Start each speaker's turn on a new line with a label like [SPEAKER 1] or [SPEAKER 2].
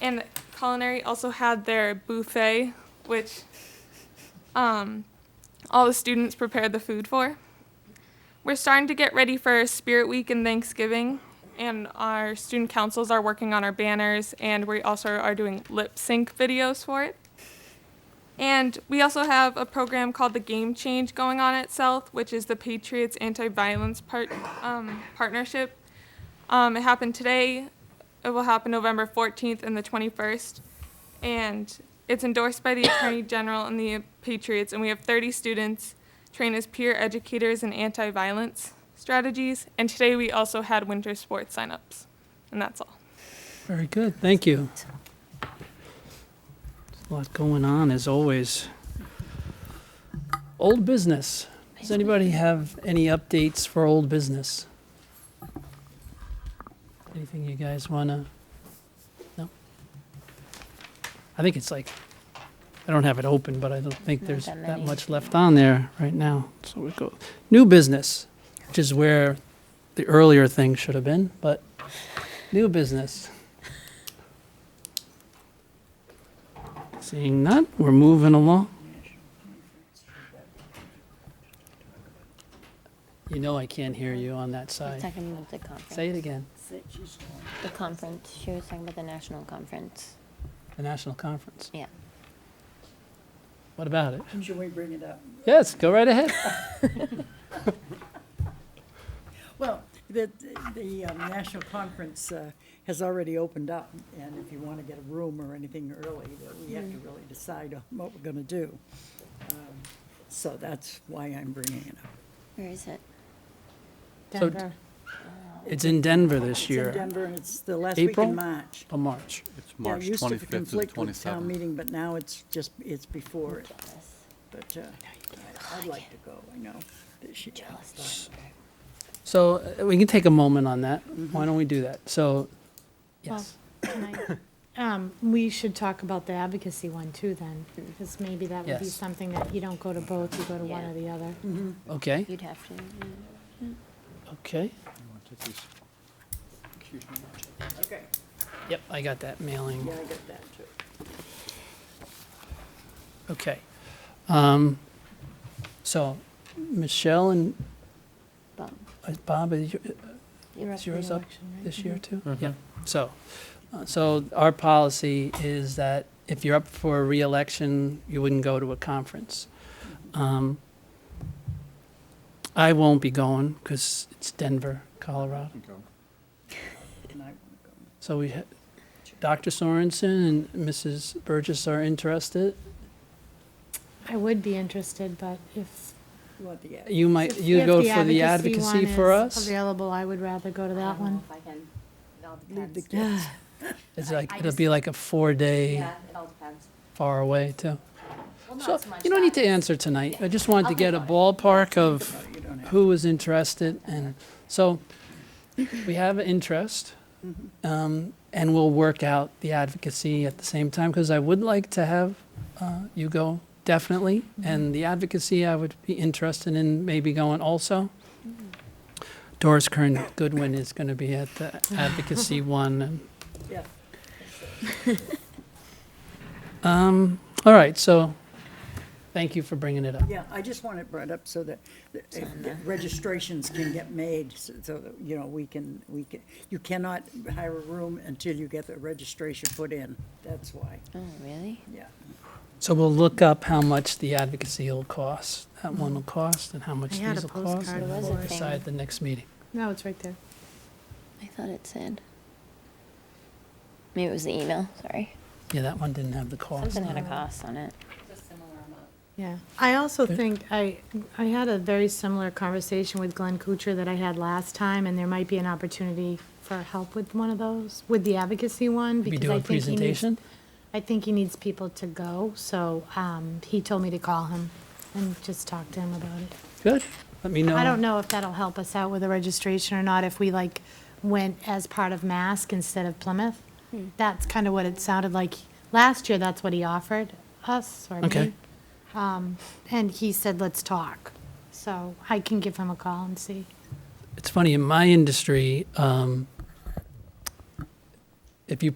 [SPEAKER 1] and culinary also had their buffet, which um, all the students prepared the food for. We're starting to get ready for Spirit Week and Thanksgiving, and our student councils are working on our banners, and we also are doing lip sync videos for it. And we also have a program called the Game Change going on at South, which is the Patriots Anti-Violence part, um, Partnership. Um, it happened today. It will happen November 14th and the 21st. And it's endorsed by the Attorney General and the Patriots. And we have 30 students trained as peer educators in anti-violence strategies. And today we also had winter sports signups. And that's all.
[SPEAKER 2] Very good, thank you. There's A lot going on, as always. Old business. Does anybody have any updates for old business? Anything you guys wanna? No? I think it's like, I don't have it open, but I don't think
[SPEAKER 3] Not
[SPEAKER 2] there's
[SPEAKER 3] that
[SPEAKER 2] that
[SPEAKER 3] many.
[SPEAKER 2] much left on there right now. So we go, new business, which is where the earlier thing should have been, but New business. Seeing none, we're moving along. You know I can't hear you on that
[SPEAKER 3] We're
[SPEAKER 2] side.
[SPEAKER 3] talking about the conference.
[SPEAKER 2] Say it again.
[SPEAKER 3] The conference. She was talking about the national conference.
[SPEAKER 2] The national conference.
[SPEAKER 3] Yeah.
[SPEAKER 2] What about it?
[SPEAKER 4] Should we bring it up?
[SPEAKER 2] Yes, go right ahead.
[SPEAKER 4] Well, the, the um, national conference uh, has already opened up, and if you want to get a room or anything early, that we have to really decide on what we're going to do. Um, So that's why I'm bringing it up.
[SPEAKER 3] Where is it?
[SPEAKER 2] So d- It's in Denver this
[SPEAKER 4] It's in
[SPEAKER 2] year,
[SPEAKER 4] Denver, and it's the last week
[SPEAKER 2] April?
[SPEAKER 4] in March.
[SPEAKER 2] till March.
[SPEAKER 5] It's
[SPEAKER 4] Yeah, it
[SPEAKER 5] March
[SPEAKER 4] used to
[SPEAKER 5] 25th to the
[SPEAKER 4] conflict with Town
[SPEAKER 5] 27th.
[SPEAKER 4] meeting, but now it's just, it's before it, but uh, I'd like to go, I know. this year.
[SPEAKER 3] Oh, Jealous.
[SPEAKER 2] So uh, we can take a moment on that. Why don't we do that? So, yes.
[SPEAKER 6] Can I- um, We should talk about the advocacy one too then, because maybe that would be
[SPEAKER 2] Yes.
[SPEAKER 6] something that you don't go to both, you go to one
[SPEAKER 3] Yeah.
[SPEAKER 6] or the other.
[SPEAKER 4] Mm-hmm,
[SPEAKER 2] Okay,
[SPEAKER 3] You'd have to.
[SPEAKER 2] okay.
[SPEAKER 4] Okay,
[SPEAKER 2] Yep, I got that mailing.
[SPEAKER 4] yeah, I get that, too.
[SPEAKER 2] Okay. Um, So Michelle and
[SPEAKER 3] But
[SPEAKER 2] uh, Bob, is your-
[SPEAKER 3] you're
[SPEAKER 2] is yours up this year
[SPEAKER 3] Mm-hmm.
[SPEAKER 2] too?
[SPEAKER 5] Mhm.
[SPEAKER 2] Yeah, so, uh, so our policy is that if you're up for a reelection, you wouldn't go to a conference. Um, I won't be going because it's Denver, Colorado.
[SPEAKER 4] And I wanna go.
[SPEAKER 2] So we, ha- Dr. Sorensen and Mrs. Burgess are interested.
[SPEAKER 6] I would be interested, but if.
[SPEAKER 4] You want the ad?
[SPEAKER 2] You might,
[SPEAKER 6] if-
[SPEAKER 2] you
[SPEAKER 6] if
[SPEAKER 2] go for the
[SPEAKER 6] one
[SPEAKER 2] advocacy for
[SPEAKER 6] is
[SPEAKER 2] us?
[SPEAKER 6] Available, I would rather go to that one.
[SPEAKER 7] I can, it all
[SPEAKER 4] Leave the
[SPEAKER 7] depends.
[SPEAKER 4] kids.
[SPEAKER 2] It's
[SPEAKER 7] I-
[SPEAKER 2] like,
[SPEAKER 7] I
[SPEAKER 2] it'll
[SPEAKER 7] just-
[SPEAKER 2] be like a four-day,
[SPEAKER 7] Yeah, it all depends.
[SPEAKER 2] far away too.
[SPEAKER 7] Well,
[SPEAKER 2] So,
[SPEAKER 7] not so much
[SPEAKER 2] you don't need
[SPEAKER 7] that.
[SPEAKER 2] to answer tonight. I just wanted to
[SPEAKER 7] I'll
[SPEAKER 2] get a
[SPEAKER 7] think
[SPEAKER 2] ballpark
[SPEAKER 4] No,
[SPEAKER 2] of
[SPEAKER 4] you don't have
[SPEAKER 2] who was interested, and so we have an interest, um, and we'll work out the advocacy at the same time, because I would like to have uh, you go, definitely, and the advocacy I would be interested in maybe going also. Doris Kern Goodwin is going to be at the advocacy one, and
[SPEAKER 4] Yeah.
[SPEAKER 2] Um, all right, so, thank you for bringing it up.
[SPEAKER 4] Yeah, I just want it brought up so that that if the registrations can get made, so so that, you know, we can, we can, you cannot hire a room until you get the registration put in. That's why,
[SPEAKER 3] Oh, really?
[SPEAKER 4] yeah.
[SPEAKER 2] So we'll look up how much the advocacy will cost, that one will cost, and how much
[SPEAKER 6] I had
[SPEAKER 2] these
[SPEAKER 6] a
[SPEAKER 2] will cost,
[SPEAKER 6] postcard
[SPEAKER 2] and
[SPEAKER 3] of
[SPEAKER 2] we'll
[SPEAKER 3] it.
[SPEAKER 2] decide at the next meeting.
[SPEAKER 6] No, it's right there.
[SPEAKER 3] I thought it said. Maybe it was the email. Sorry.
[SPEAKER 2] Yeah, that one didn't have the cost.
[SPEAKER 3] Something
[SPEAKER 2] on
[SPEAKER 3] had a
[SPEAKER 2] it.
[SPEAKER 3] cost on it.
[SPEAKER 6] Yeah, I also think, I, I had a very similar conversation with Glenn Kuchar that I had last time, and there might be an opportunity for help with one of those, with the advocacy one,
[SPEAKER 2] We
[SPEAKER 6] because
[SPEAKER 2] do
[SPEAKER 6] I
[SPEAKER 2] a
[SPEAKER 6] think he needs.
[SPEAKER 2] presentation?
[SPEAKER 6] I think he needs people to go, so, um, he told me to call him and just talk to him about it.
[SPEAKER 2] Good, let me know.
[SPEAKER 6] I don't know if that'll help us out with the registration or not, if we like went as part of Mask instead of Plymouth. That's kind of what it sounded like. Last year, that's what he offered us, or
[SPEAKER 2] Okay.
[SPEAKER 6] me. Um, And he said, let's talk. So I can give him a call and see.
[SPEAKER 2] It's funny, in my industry, um, if you